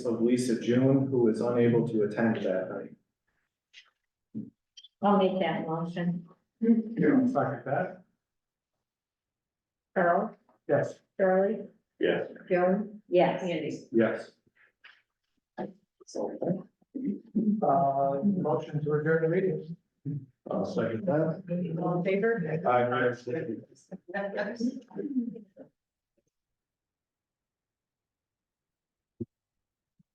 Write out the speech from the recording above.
of Lisa June, who is unable to attend that night. I'll make that motion. Karen, second that? Carl, Yes. Charlie, Yes. Joan? Yes. Yes. Uh, motion to adjourn the meeting. I'll second that. All in favor? Aye.